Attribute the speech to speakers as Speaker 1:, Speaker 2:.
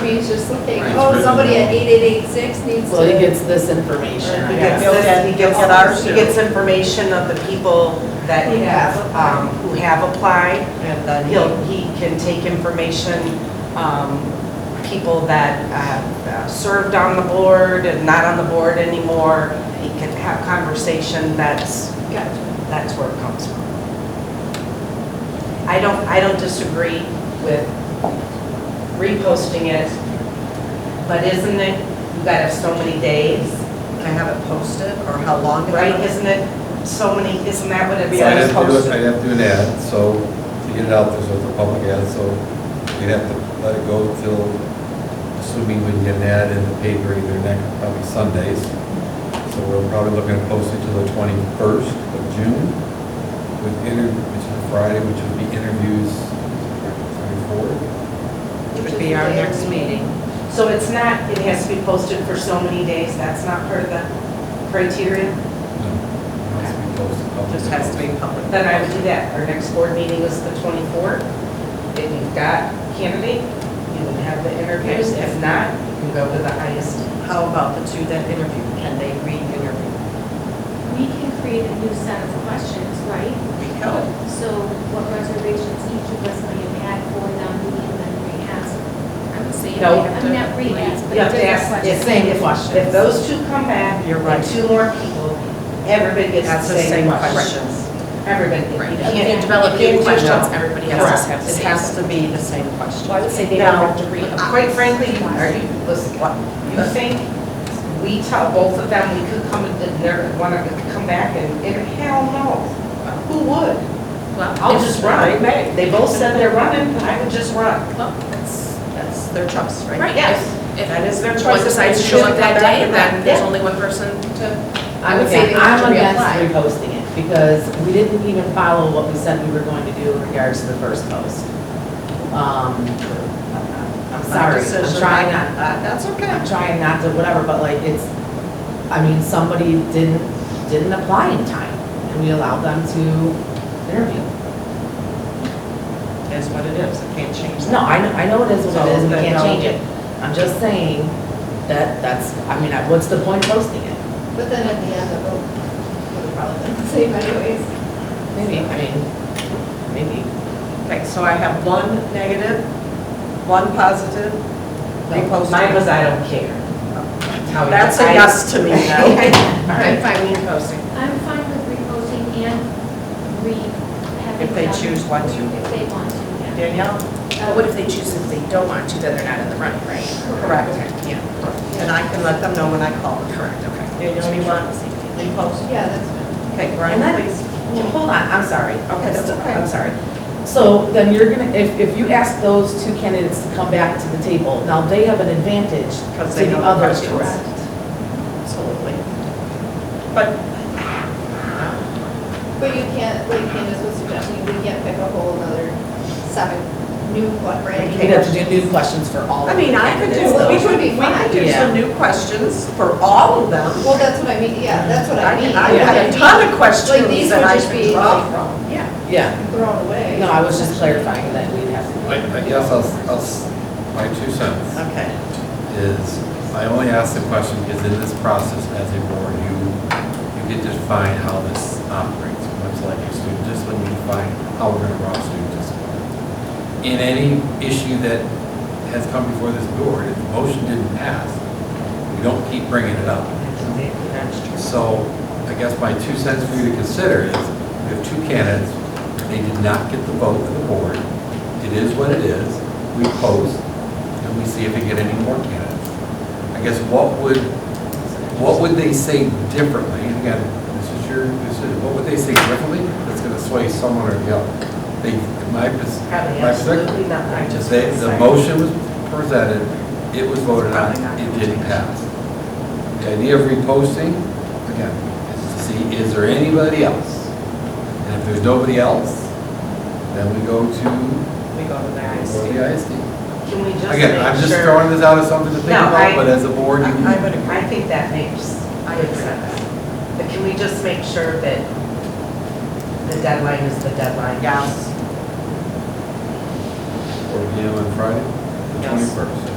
Speaker 1: Everybody's just thinking,
Speaker 2: Right.
Speaker 1: oh, somebody at eight eight eight six needs to.
Speaker 3: Well, he gets this information, I
Speaker 4: He
Speaker 3: guess.
Speaker 4: gets,
Speaker 5: Bill
Speaker 4: this- he gets ours, he
Speaker 2: Yeah.
Speaker 4: gets information of the people that
Speaker 1: Who have
Speaker 4: have, um, who have applied.
Speaker 3: And then
Speaker 4: He'll,
Speaker 3: he'll,
Speaker 4: he can take information, um, people that uh, served on the board and not on the board anymore. He can have conversation, that's,
Speaker 1: Gotcha.
Speaker 4: that's where it comes from. I don't, I don't disagree with reposting it, but isn't it, you gotta have so many days?
Speaker 5: Can I have it posted or how long? do I
Speaker 4: Right,
Speaker 5: have it?
Speaker 4: isn't it so many, isn't that what it
Speaker 6: So I'd
Speaker 4: says?
Speaker 6: have to, do-
Speaker 4: posted?
Speaker 6: I'd have to do an ad, so to get it out there, so it's a public ad, so we'd have to let it go till, assuming we can get an ad in the paper either next, probably Sundays. So we're probably looking to post it till the twenty-first of June with inter, which is a Friday, which would be interviews twenty-four.
Speaker 1: Which
Speaker 5: Would
Speaker 1: is
Speaker 5: be our
Speaker 1: the day
Speaker 5: next
Speaker 1: we-
Speaker 5: meeting.
Speaker 4: So it's not, it has to be posted for so many days, that's not part of the criteria?
Speaker 6: No, it has to be posted publicly.
Speaker 5: Just has to be public.
Speaker 4: Then I would do that. Our next board meeting is the 24th. If you've got candidate, you can have the interviews. If not, you can go to the ISD.
Speaker 5: How about the two that interviewed? Can they re-interview?
Speaker 7: We can create a new set of questions, right?
Speaker 5: No.
Speaker 7: So what reservations each of us may have had for them, we can then re-ask. I'm saying,
Speaker 4: No.
Speaker 7: I'm not re-ask, but
Speaker 4: You have to
Speaker 7: different
Speaker 4: ask.
Speaker 7: questions.
Speaker 4: if-
Speaker 3: Same
Speaker 4: if-
Speaker 3: questions.
Speaker 4: If those two come back,
Speaker 5: You're
Speaker 4: and
Speaker 5: right.
Speaker 4: two more people, everybody gets
Speaker 5: That's
Speaker 4: the
Speaker 5: the
Speaker 4: same
Speaker 5: same
Speaker 4: question.
Speaker 5: questions.
Speaker 4: Everybody.
Speaker 2: Right.
Speaker 4: You
Speaker 2: You
Speaker 4: can't-
Speaker 2: can't develop
Speaker 4: you
Speaker 2: new
Speaker 4: can't do-
Speaker 2: questions, everybody has to have
Speaker 5: Correct.
Speaker 2: the
Speaker 5: It
Speaker 2: same.
Speaker 5: has to be the same
Speaker 2: Well, I
Speaker 5: question.
Speaker 2: would say they don't
Speaker 4: Now,
Speaker 2: have to read.
Speaker 4: Uh,
Speaker 5: uh,
Speaker 4: Quite frankly, are you, listen, what, you think we tell both of them we could come, and they're gonna come back and, and hell no. Who would?
Speaker 2: Well,
Speaker 4: I'll
Speaker 2: if-
Speaker 4: just run. They both said they're running, I would just run.
Speaker 2: Well, that's,
Speaker 5: That's their choice, right?
Speaker 2: right.
Speaker 4: Yes.
Speaker 2: If
Speaker 4: That is their
Speaker 2: if
Speaker 4: choice.
Speaker 2: one decides to show up that day, then there's only one person to.
Speaker 3: I would say, I'm against reposting it, because we didn't even follow what we said we were going to do in regards to the first post. Um, I'm sorry, I'm trying not,
Speaker 5: That's okay.
Speaker 3: I'm trying not to, whatever, but like, it's, I mean, somebody didn't, didn't apply in time, and we allowed them to interview.
Speaker 5: Is what it is. I can't change that.
Speaker 3: No, I know, I know it is what it is, we
Speaker 5: So,
Speaker 3: can't
Speaker 5: no.
Speaker 3: change it. I'm just saying that, that's, I mean, I- what's the point of posting it?
Speaker 1: But then at the end, it'll, it'll probably be the same anyways.
Speaker 3: Maybe, I mean, maybe.
Speaker 5: Okay, so I have one negative, one positive. Repost.
Speaker 4: Mine was, I don't care. How Oh, you
Speaker 5: That's a
Speaker 4: decide.
Speaker 5: yes to me now.
Speaker 4: All right, fine, we posting.
Speaker 7: I'm fine with reposting and re, having.
Speaker 5: If they
Speaker 7: them-
Speaker 5: choose one to.
Speaker 7: If they want to, yeah.
Speaker 5: Danielle?
Speaker 7: Uh,
Speaker 2: But what if they choose, if they don't want to, then they're not in the running, right?
Speaker 5: Correct.
Speaker 2: Okay, yeah,
Speaker 5: And I can let them know when I call.
Speaker 2: correct, okay.
Speaker 5: Danielle, you want repost?
Speaker 1: Yeah, that's fine.
Speaker 5: Okay,
Speaker 3: And
Speaker 5: Brian,
Speaker 3: that
Speaker 5: please.
Speaker 3: is, hold on, I'm sorry.
Speaker 5: Okay, that's okay.
Speaker 3: I'm sorry. So then you're gonna, if, if you ask those two candidates to come back to the table, now they have an advantage
Speaker 5: Because
Speaker 3: to
Speaker 5: they
Speaker 3: the
Speaker 5: know the
Speaker 3: other two.
Speaker 5: questions.
Speaker 3: Absolutely.
Speaker 5: But
Speaker 1: But you can't, like Candace was suggesting, we can't pick a whole another seven new, what, right?
Speaker 3: We'd have to do new questions for all
Speaker 5: I
Speaker 3: of them.
Speaker 5: mean, I could do,
Speaker 1: Well,
Speaker 5: we
Speaker 1: it
Speaker 5: could,
Speaker 1: should be
Speaker 5: we could do
Speaker 3: fine.
Speaker 5: some new questions for all of them.
Speaker 1: Well, that's what I mean, yeah, that's what I
Speaker 5: I
Speaker 1: mean.
Speaker 5: can- I
Speaker 1: Like,
Speaker 5: have a ton of
Speaker 1: Like,
Speaker 5: questions
Speaker 1: these
Speaker 5: that
Speaker 1: would
Speaker 5: I
Speaker 1: just
Speaker 5: could
Speaker 1: be
Speaker 5: draw
Speaker 1: like
Speaker 5: from.
Speaker 2: Yeah.
Speaker 3: Yeah,
Speaker 1: thrown away.
Speaker 3: no, I was just clarifying that we'd have to.
Speaker 6: I, I guess I'll, I'll, s- my two cents.
Speaker 5: Okay.
Speaker 6: is, I only ask the question because in this process as a board, you, you get to define how this operates, much like your student discipline, you define how we're gonna run student discipline. In any issue that has come before this board, if the motion didn't pass, we don't keep bringing it up. So I guess my two cents for you to consider is, we have two candidates, they did not get the vote of the board. It is what it is, we post, and we see if we get any more candidates. I guess what would, what would they say differently? And again, this is your, this is, what would they say differently that's gonna sway someone or the other? They, my, pers-
Speaker 4: Probably
Speaker 6: my perspective
Speaker 4: absolutely not. I just
Speaker 6: the, the motion was presented, it was voted on,
Speaker 5: Probably not.
Speaker 6: it didn't pass. The idea of reposting, again, is to see, is there anybody else? And if there's nobody else, then we go to
Speaker 5: We go to the
Speaker 6: go to
Speaker 5: ISD.
Speaker 6: the ISD.
Speaker 4: Can we just make sure?
Speaker 6: Again, I'm just throwing this out as something to think
Speaker 4: No, I-
Speaker 6: about, but as a board, you can.
Speaker 5: I would agree.
Speaker 4: I think that makes
Speaker 5: I
Speaker 4: good
Speaker 5: agree.
Speaker 4: sense. But can we just make sure that the deadline is the deadline?
Speaker 5: Yes.
Speaker 6: Or, you know, on Friday, the
Speaker 5: Yes.
Speaker 6: twenty-first.